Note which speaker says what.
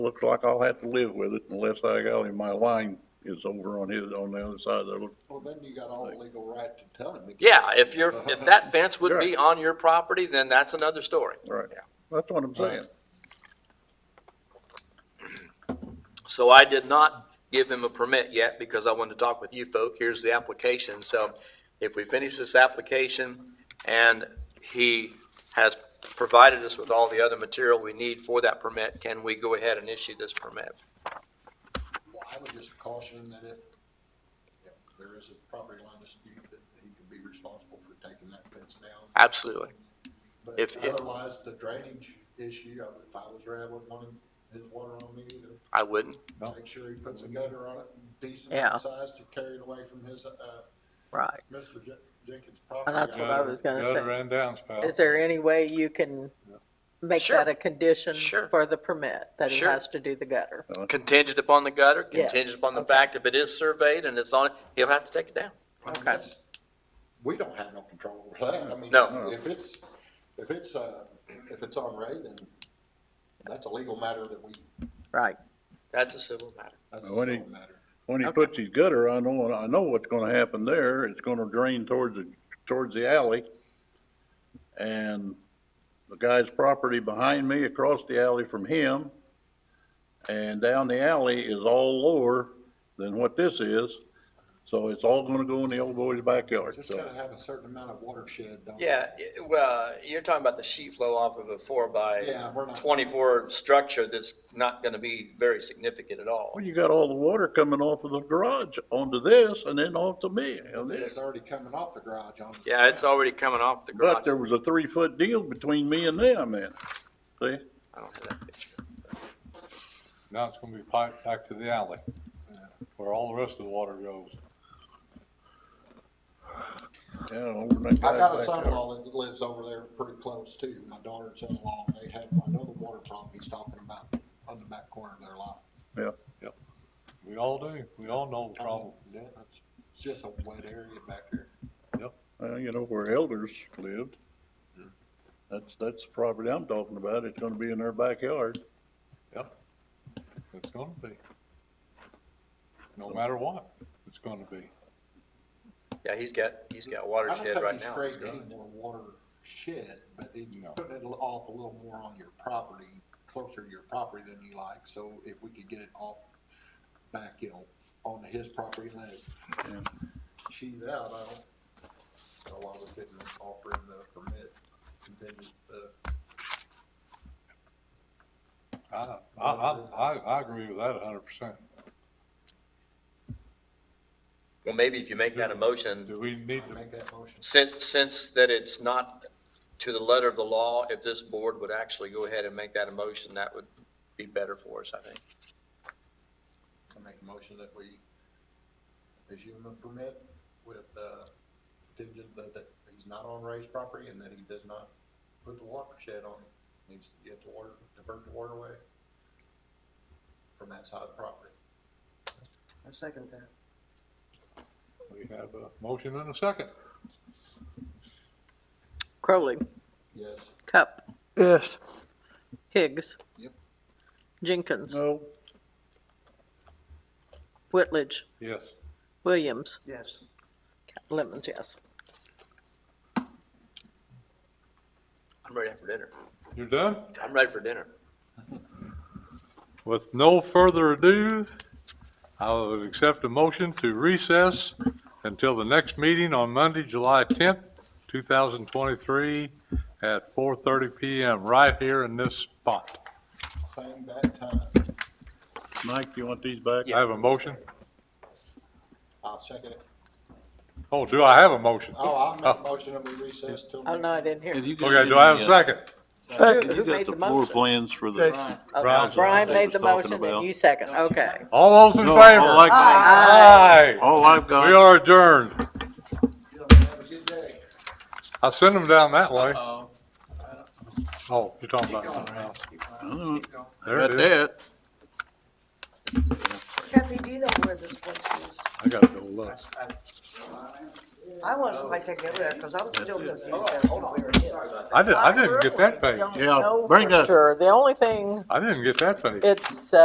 Speaker 1: looks like I'll have to live with it unless I got, him- my line is over on his, on the other side of the,
Speaker 2: Well, then you got all the legal right to tell him.
Speaker 3: Yeah, if you're, if that fence would be on your property, then that's another story.
Speaker 1: right.
Speaker 3: Yeah.
Speaker 1: That's what I'm saying.
Speaker 3: So I did not give him a permit yet because I wanted to talk with you folk. Here's the application. So if we finish this application and he has provided us with all the other material we need for that permit, can we go ahead and issue this permit?
Speaker 2: Well, I would just caution that if, if there is a property line dispute, that he could be responsible for taking that fence down.
Speaker 3: Absolutely.
Speaker 2: But
Speaker 3: If- if-
Speaker 2: otherwise, the drainage issue, I would- if I was there, I wouldn't want him- his water on me either.
Speaker 3: I wouldn't.
Speaker 2: Make sure he puts a gutter on it,
Speaker 4: Yeah.
Speaker 2: decent size to carry it away from his, uh,
Speaker 4: Right.
Speaker 2: Mr. Jen- Jenkins' property.
Speaker 4: that's what I
Speaker 2: owner.
Speaker 4: was gonna say.
Speaker 5: Gutter and downspout.
Speaker 4: Is there any way you can make
Speaker 3: Sure.
Speaker 4: that a condition
Speaker 3: Sure.
Speaker 4: for the permit, that he
Speaker 3: Sure.
Speaker 4: has to do the gutter?
Speaker 3: Contingent upon the gutter,
Speaker 4: Yes,
Speaker 3: contingent upon the
Speaker 4: okay.
Speaker 3: fact if it is surveyed and it's on it, he'll have to take it down.
Speaker 2: I mean,
Speaker 4: Okay.
Speaker 2: that's- We don't have no control over that. I mean,
Speaker 3: No.
Speaker 2: if it's, if it's, uh, if it's on Ray, then that's a legal matter that we,
Speaker 4: Right.
Speaker 3: That's a civil matter.
Speaker 2: that's a
Speaker 1: When he-
Speaker 2: legal matter.
Speaker 1: When he
Speaker 4: Okay.
Speaker 1: puts his gutter, I know, I know what's gonna happen there. It's gonna drain towards the, towards the alley. And the guy's property behind me, across the alley from him, and down the alley is all lower than what this is. So it's all gonna go in the old boy's backyard,
Speaker 2: Just
Speaker 1: so.
Speaker 2: gotta have a certain amount of watershed. don't we?
Speaker 3: Yeah, it- well, you're talking about the sheet flow off of a four by
Speaker 2: Yeah, we're not.
Speaker 3: twenty-four structure that's not gonna be very significant at all.
Speaker 1: Well, you got all the water coming off of the garage onto this and then off to me. and this.
Speaker 2: It's already coming off the garage on.
Speaker 3: Yeah, it's already coming off the
Speaker 1: But
Speaker 3: garage.
Speaker 1: there was a three-foot deal between me and them, man. See?
Speaker 3: I don't have that picture.
Speaker 5: Now it's gonna be piped back to the alley where all the rest of the water goes.
Speaker 1: Yeah, over in that
Speaker 2: I
Speaker 1: guy's
Speaker 2: got a
Speaker 1: backyard.
Speaker 2: son-in-law that lives over there pretty close too. My daughter and son-in-law, they have another water problem he's talking about on the back corner of their lot.
Speaker 5: We all do. We all know the
Speaker 4: Oh.
Speaker 2: I mean,
Speaker 5: problem.
Speaker 2: that's- It's just a wet area back here.
Speaker 1: Well, you know, where elders lived. That's, that's the property I'm talking about. It's gonna be in their backyard.
Speaker 5: It's gonna be. No matter what, it's gonna be.
Speaker 3: Yeah, he's got, he's got
Speaker 2: I don't
Speaker 3: watershed
Speaker 2: think
Speaker 3: right
Speaker 2: he's
Speaker 3: now.
Speaker 2: creating any more watershed, but he's
Speaker 5: No.
Speaker 2: putting it off a little more on your property, closer to your property than you like. So if we could get it off back, you know, onto his property, let it
Speaker 1: Yeah.
Speaker 2: cheese out, I don't know why we couldn't offer him the uh, permit. contingent, uh,
Speaker 5: I, I, I, I, I agree with that a hundred percent.
Speaker 3: Well, maybe if you make that a motion,
Speaker 5: Do we need to,
Speaker 2: Make that motion.
Speaker 3: since, since that it's not to the letter of the law, if this board would actually go ahead and make that a motion, that would be better for us, I think.
Speaker 2: I make a motion that we issue him a permit with, uh, contingent that, that he's not on raised property and that he does not put the watershed on, needs to get the water, divert the water away from that side of the property.
Speaker 6: I second that.
Speaker 5: we have a motion and a second?
Speaker 4: Crowley,
Speaker 2: Yes.
Speaker 4: Cup. Yes. Higgs.
Speaker 2: Yep.
Speaker 4: Jenkins,
Speaker 1: No,
Speaker 4: Whitledge,
Speaker 5: Yes.
Speaker 4: Williams,
Speaker 6: Yes.
Speaker 4: Lemons, yes.
Speaker 3: I'm ready for dinner.
Speaker 5: You're done?
Speaker 3: I'm ready for dinner.
Speaker 5: With no further ado, I would accept a motion to recess until the next meeting on Monday, July 10th, 2023, at 4:30 PM, right here in this spot.
Speaker 2: Same bad time.
Speaker 1: Mike, you want these back?
Speaker 5: I have a motion?
Speaker 2: I'll second it.
Speaker 5: Oh, do I have a motion?
Speaker 2: Oh, I'll make a motion that we recess till.
Speaker 4: Oh, no, I didn't hear.
Speaker 5: Okay, do I have a second?
Speaker 4: Who
Speaker 1: uh, You
Speaker 4: who
Speaker 1: got
Speaker 4: made
Speaker 1: the
Speaker 4: the
Speaker 1: floor
Speaker 4: motion?
Speaker 1: plans for the.
Speaker 4: Oh,
Speaker 5: Brian.
Speaker 4: Brian made the
Speaker 1: Brian was
Speaker 4: motion
Speaker 1: talking about.
Speaker 4: and you second, okay.
Speaker 5: All those in
Speaker 1: No,
Speaker 5: favor?
Speaker 1: all I-
Speaker 5: Aye.
Speaker 1: All I've got.
Speaker 5: We are adjourned.
Speaker 2: You know, Have a good day.
Speaker 5: I sent them down that way. Oh, you're talking about something else.
Speaker 1: I
Speaker 5: There
Speaker 1: uh, got
Speaker 5: it is.
Speaker 1: that.
Speaker 6: Kathy, do you know where this place is?
Speaker 5: I gotta go look.
Speaker 6: I wasn't somebody take me over there, because I'm still confused as to
Speaker 2: Oh, Hold on,
Speaker 6: where
Speaker 2: hold
Speaker 6: it is.
Speaker 2: on. Sorry.
Speaker 5: I didn't, I didn't get that page.
Speaker 4: Don't
Speaker 1: Yeah,
Speaker 4: know
Speaker 1: bring
Speaker 4: for
Speaker 1: that-
Speaker 4: sure. The only thing,
Speaker 5: I didn't get that page.
Speaker 4: it's,